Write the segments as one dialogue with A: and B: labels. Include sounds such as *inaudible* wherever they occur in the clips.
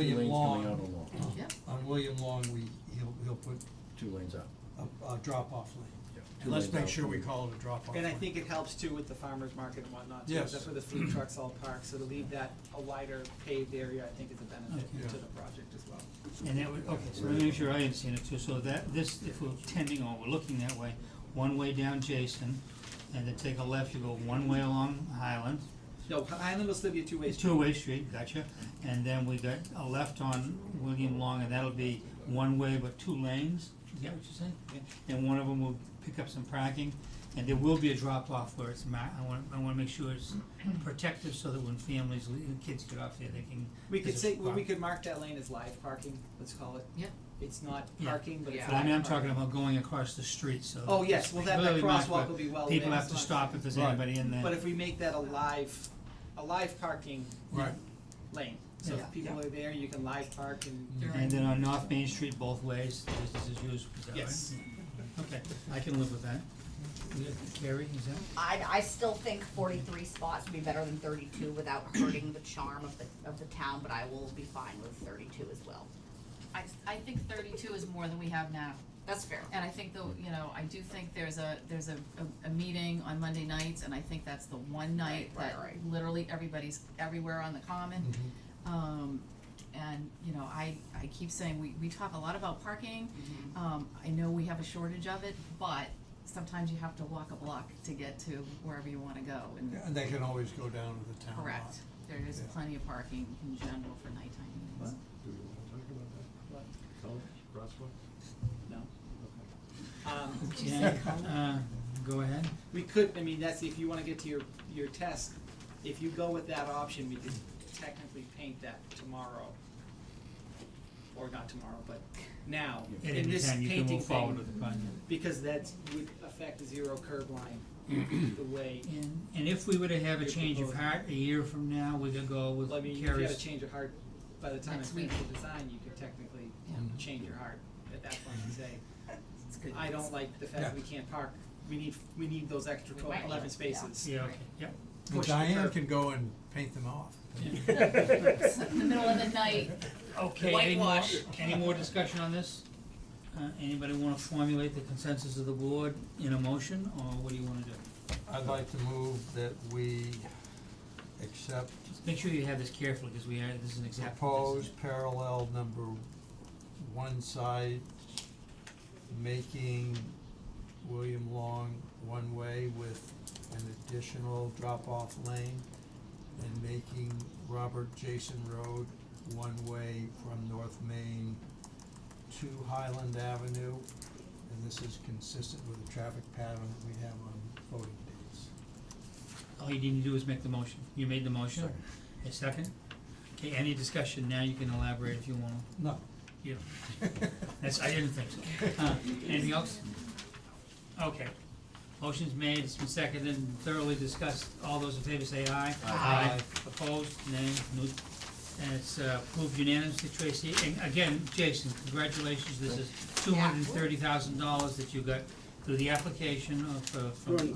A: Uh, William Long, we, he'll, he'll put
B: two lanes
C: *laughs*
B: out.
A: a, a drop-off lane.
B: Yep, two
A: And let's
B: lanes
A: make
B: out.
A: sure we call it a drop-off lane.
D: And I think it helps too with the farmer's market and whatnot, too.
A: Yes.
D: That's where the food trucks all park, so to leave that a wider paved area, I think is a
A: Yeah.
D: benefit to the project as well.
C: And that would, okay, so let me make sure I understand it too, so that, this, if we're tending or we're looking that way, one way down Jason, and then take a left, you go one way along Highland,
D: No, Highland will still be a two-way
C: it's
D: street.
C: two-way street, gotcha, and then we got a left on William Long, and that'll be one way but two lanes, is that what you're saying? And one of them will pick up some parking, and there will be a drop-off where it's ma- I wanna, I wanna make sure it's protective so that when families, le- kids get off there, they can.
D: We could
C: there's a
D: say, well, we
C: spot.
D: could mark that lane as live parking, let's call it.
E: Yeah.
D: It's not
C: Yeah.
D: parking, but it's
C: But I
D: live
C: mean, I'm
D: parking.
C: talking about going across the street, so.
D: Oh, yes, well, that, that
C: particularly marked
D: crosswalk
C: where
D: will be well lit.
C: People have to stop if there's
A: Right.
C: anybody in there.
D: But if we make that a live, a live parking
A: Right,
D: lane, so
E: Yeah.
D: if people are there, you can live park and.
E: You're
C: And
E: right.
C: then on North Main Street, both ways, business as usual, is that right?
D: Yes.
C: Okay, I can live with that. Carrie, is
D: *laughs*
C: that?
E: I, I still think forty-three spots would be better than thirty-two without hurting the charm of the, of the town, but I will be fine with thirty-two as well.
F: I, I think thirty-two is more than we have now,
E: That's fair.
F: and I think though, you know, I do think there's a, there's a, a, a meeting on Monday nights, and I think that's the one night
E: Right, right,
F: that
E: right.
F: literally everybody's everywhere on the common.
A: Mm-hmm.
F: Um, and, you know, I, I keep saying, we, we talk a lot about parking,
E: Mm-hmm.
F: um, I know we have a shortage of it, but sometimes you have to walk a block to get to wherever you wanna go, and,
A: and they can always go down to the town lot.
F: correct, there is
A: Yeah.
F: plenty of parking in general for nighttime meetings.
B: Do we wanna talk about
D: What?
B: that? Colors, crosswalk?
D: No.
C: Mm-hmm.
D: Um,
C: Yeah, uh,
E: *laughs*
C: go ahead.
D: We could, I mean, that's, if you wanna get to your, your test, if you go with that option, we could technically paint that tomorrow. Or not tomorrow, but now,
C: At
D: in
C: any
D: this
C: time, you can
D: painting
C: move forward
D: thing,
C: with the project.
D: because that would affect zero curb line, the way,
C: And, and if we were to have a
D: You're
C: change of
D: proposing.
C: heart a year from now, we could go with
D: well, I mean, if you had a
C: Carrie's.
D: change of heart, by the time I
F: Next
D: finish
F: week.
D: the design, you could technically
F: Yeah.
D: change your heart at that point and say,
F: *laughs* It's good.
D: I don't like the
A: Yeah.
D: fact we can't park, we need, we need those extra
F: We
D: twelve,
F: might,
D: eleven
F: yeah.
D: spaces.
C: Yeah, okay, yep.
A: And
D: Push the
A: Diane
D: curb.
A: can go and paint them off.
F: *laughs* In the middle of the night,
C: Okay, any more,
F: Whitewash.
C: any more discussion on this? Uh, anybody wanna formulate the consensus of the board in a motion, or what do you wanna do?
A: I'd like to move that we accept
C: Just make sure you have this carefully, cause we are, this is an example.
A: proposed parallel number one side, making William Long one-way with an additional drop-off lane, and making Robert Jason Road one-way from North Main to Highland Avenue. And this is consistent with the traffic pattern that we have on voting days.
C: All you need to do is make the motion. You made the motion? A second? Okay, any discussion now, you can elaborate if you wanna.
A: No.
C: Yeah. That's, I didn't think so. Uh, anything else? Okay. Motion's made, it's been seconded and thoroughly discussed. All those in favor say aye.
A: Aye.
C: Opposed, nay, no, and it's uh, approved unanimously, Tracy. And again, Jason, congratulations, this is two hundred and thirty thousand dollars that you got through the application of, uh, from,
F: two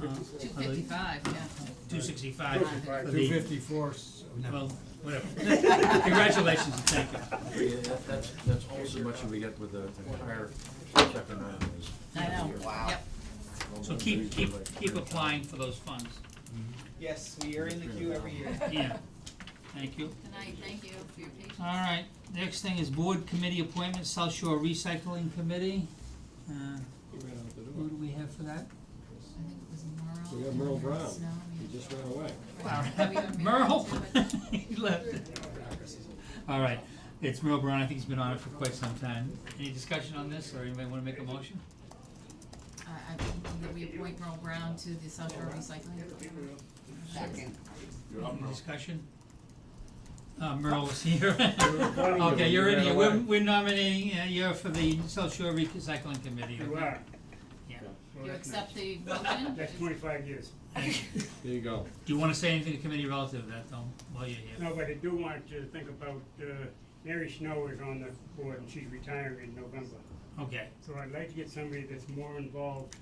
F: fifty-five, yeah.
C: Two sixty-five.
A: Two fifty-four, no.
C: Well, whatever. *laughs* Congratulations and thank you.
B: Yeah, that- that's, that's also much that we get with the the higher second round is.
F: I know.
E: Wow.
F: Yep.
C: So keep, keep, keep applying for those funds.
D: Yes, we are in the queue every year.
C: Yeah, thank you.
F: Good night, thank you for your patience.
C: All right, next thing is board committee appointments, South Shore Recycling Committee. Uh,
G: He ran out the
C: Who
G: door.
C: do we have for that?
F: I think it was Merle.
G: We got Merle Brown.
F: Snow,
G: He just ran away.
F: yeah. Have we even made
C: Merle?
F: it to it?
C: *laughs* He left. All right, it's Merle Brown, I think he's been on it for quite some time. Any discussion on this, or anybody wanna make a motion?
F: I, uh, I think that we appoint Merle Brown to the South Shore Recycling.
E: Second.
C: Any discussion? Uh, Merle was here. *laughs* Okay, you're in here, we're, we're nominating, uh, you're for the South Shore Recycling Committee, okay?
H: You are.
C: Yeah.
H: Well,
F: You
H: that's
F: accept the
H: nice. *laughs*
F: motion?
H: That's twenty-five years.
G: There you go.
C: Do you wanna say anything to committee relative to that, though, while you're here?
H: No, but I do want to think about, uh, Mary Snow is on the board and she's retiring in November.
C: Okay,
H: So I'd like to get somebody that's more involved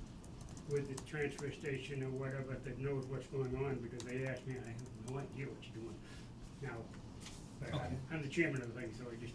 H: with the transfer station or whatever that knows what's going on because they asked me, I have no idea what you're doing now. But I'm, I'm the chairman of the thing, so I just